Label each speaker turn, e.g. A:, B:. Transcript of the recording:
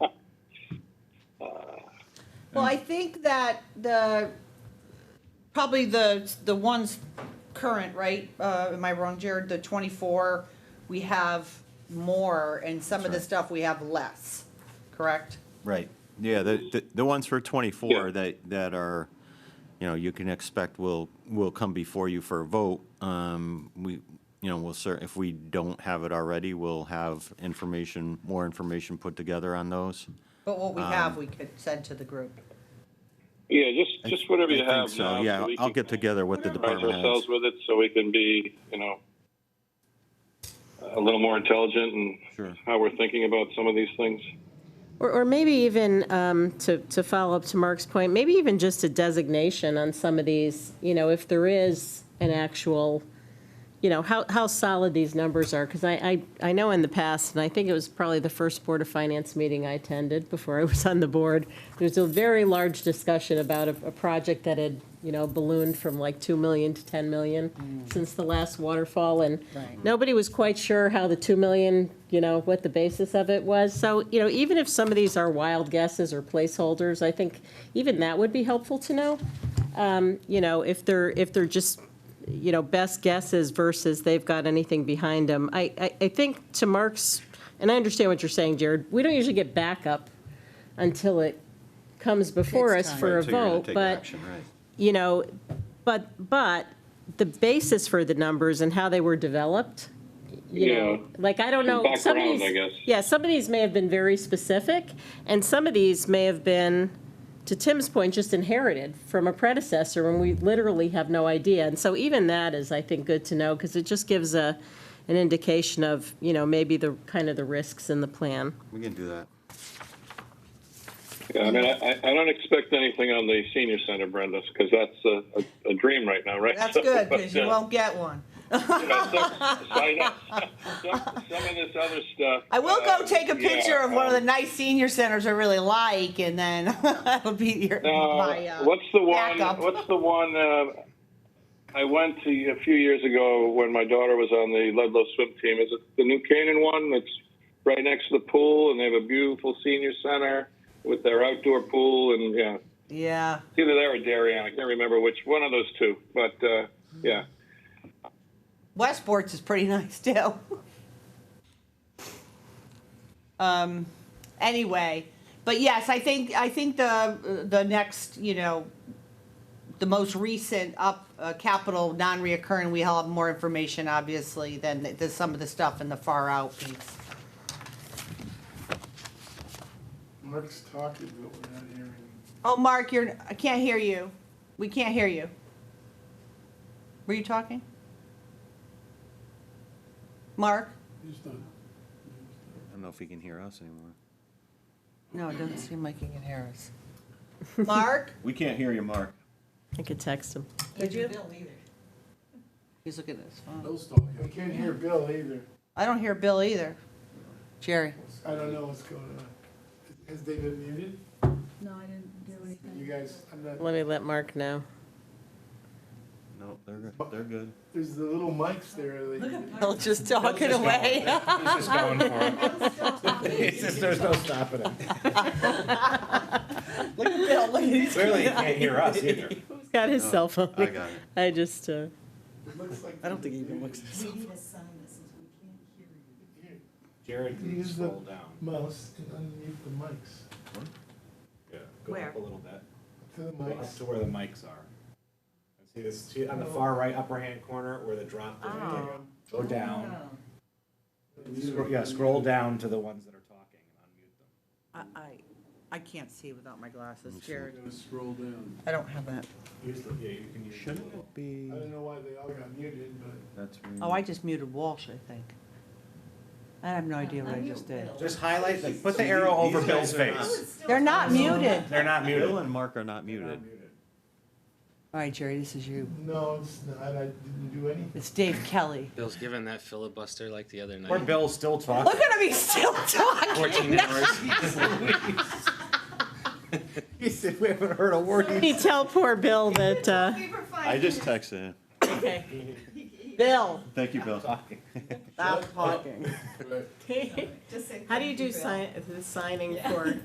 A: Well, I think that the, probably the, the ones current, right? Uh, am I wrong, Jared? The twenty-four, we have more, and some of the
B: That's right.
A: stuff we have less, correct?
B: Right, yeah, the, the- the ones for
C: Yeah.
B: 24 that, that are, you know, you can expect will, will come before you for a vote. Um, We, you know, we'll cer, if we don't have it already, we'll have information, more information put together on those.
A: But what
C: Um,
A: we have, we could send to the group.
C: Yeah, just, just whatever
B: I
C: you
B: think
C: have
B: so,
C: now. so
B: Yeah,
C: we
B: I'll
C: can
B: get together with the
C: Surprise
B: department heads.
C: ourselves with it so we can be, you know, a little more intelligent in
B: Sure.
C: how we're thinking about some of these things.
D: Or, or maybe even, um, to, to follow up to Mark's point, maybe even just a designation on some of these, you know, if there is an actual, you know, how, how solid these numbers are, because I, I, I know in the past, and I think it was probably the first Board of Finance meeting I attended before I was on the board, there was a very large discussion about a, a project that had, you know, ballooned from like 2 million to 10 million since the last waterfall, and
A: Right.
D: nobody was quite sure how the 2 million, you know, what the basis of it was. So, you know, even if some of these are wild guesses or placeholders, I think even that would be helpful to know. Um, You know, if they're, if they're just you know, best guesses versus they've got anything behind them. I, I, I think to Mark's, and I understand what you're saying, Jared, we don't usually get backup until it comes before
A: Takes
D: us
A: time.
D: for a
B: Right, so you're gonna
D: vote,
B: take
D: but,
B: action, right.
D: you know, but, but the basis for the numbers and how they were developed, you
C: Yeah.
D: know, like, I don't know. some of
C: Background,
D: these-
C: I guess.
D: Yeah, some of these may have been very specific, and some of these may have been, to Tim's point, just inherited from a predecessor when we literally have no idea. And so even that is, I think, good to know, because it just gives a, an indication of, you know, maybe the, kind of the risks in the plan.
B: We can do that.
C: Yeah, I mean, I, I I don't expect anything on the senior center, Brenda, because that's a, a, a dream right now, right?
A: That's good,
C: But,
A: because you
C: uh,
A: won't get one.
C: you know, some- I know, Some some of this other stuff.
A: I will go
C: uh,
A: take a
C: yeah,
A: picture of one of the
C: um,
A: nice senior centers I really like, and then that'll be your, my,
C: Uh,
A: uh.
C: what's the one?
A: backup.
C: What's the one? Uh, I went to a few years ago when my daughter was on the Ludlow swim team. Is it the New Canaan one? That's right next to the pool, and they have a beautiful senior center with their outdoor pool. And yeah,
A: Yeah,
C: it's either there or Darien. I can't remember which one of those two, but uh, yeah.
A: Westport's is pretty nice too. um, anyway, but yes, I think I think the the next you know the most recent up uh, capital non-reoccurring we have more information obviously than the, some of the stuff in the far out piece.
E: Mark's talking, but we're not hearing.
A: Oh, Mark, you're I can't hear you. We can't hear you. Were you talking, Mark?
E: He's not.
B: I don't know if he can hear us anymore.
A: No, it doesn't seem like he can hear us. Mark?
B: We can't hear you, Mark.
D: I could text him.
A: Did you? Bill either. He's looking at his phone.
E: Bill's talking. We can't hear Bill either.
A: I don't hear Bill either. Jerry?
E: I don't know what's going on. Has they been muted?
F: No, I didn't do anything.
E: You guys, I'm not,
D: Let me let Mark know.
B: No, they're, good- they're good.
E: there's the little mics there. that you-
A: Bill's just talking away.
G: He's just going for it. It's just, there's no stopping him.
A: Look at Bill, look at his.
G: Clearly, he can't hear us either.
D: He's got his
A: Oh,
D: cell phone.
B: I got it.
D: I just, uh,
E: It looks like.
A: I don't think he even looks at his
F: We need a sign that says we can't hear you.
G: Jared, can
E: Use the
G: scroll down.
E: mouse and unmute the mics.
G: Yeah, Go
A: Where?
G: up a little bit.
E: To the
G: Go up
E: mics.
G: to where the mics are. See this, see on the far right upper hand corner where the drop is. right there.
A: Oh.
G: Go down. Scroll- Yeah, scroll down to the ones that are talking and unmute them.
A: I, I, I can't see without my glasses, Jerry.
E: Gotta Scroll down.
A: I don't have that.
G: Use the, yeah, you can use the
B: Shouldn't
G: little.
B: it be,
E: I don't know why they all got muted, but
B: that's.
A: Oh, I just muted Walsh, I think. I have no idea what I just did.
G: Just highlight, like, put the arrow over Bill's face.
A: They're not muted.
G: They're not muted.
B: Bill and Mark are not muted.
A: All right, Jerry, this is you.
E: no, it's not. I didn't do anything.
A: It's Dave Kelly.
H: Bill's giving that filibuster like the other night.
G: Or Bill's still
A: Look
G: talking.
A: at him, he's still talking.
H: 14 hours.
G: He said, we haven't heard a word. he
D: you tell poor Bill that, uh,
B: I just texted him.
A: Bill,
B: Thank you, Bill.
A: stop talking.
E: Right.
D: how do you do sign, the signing for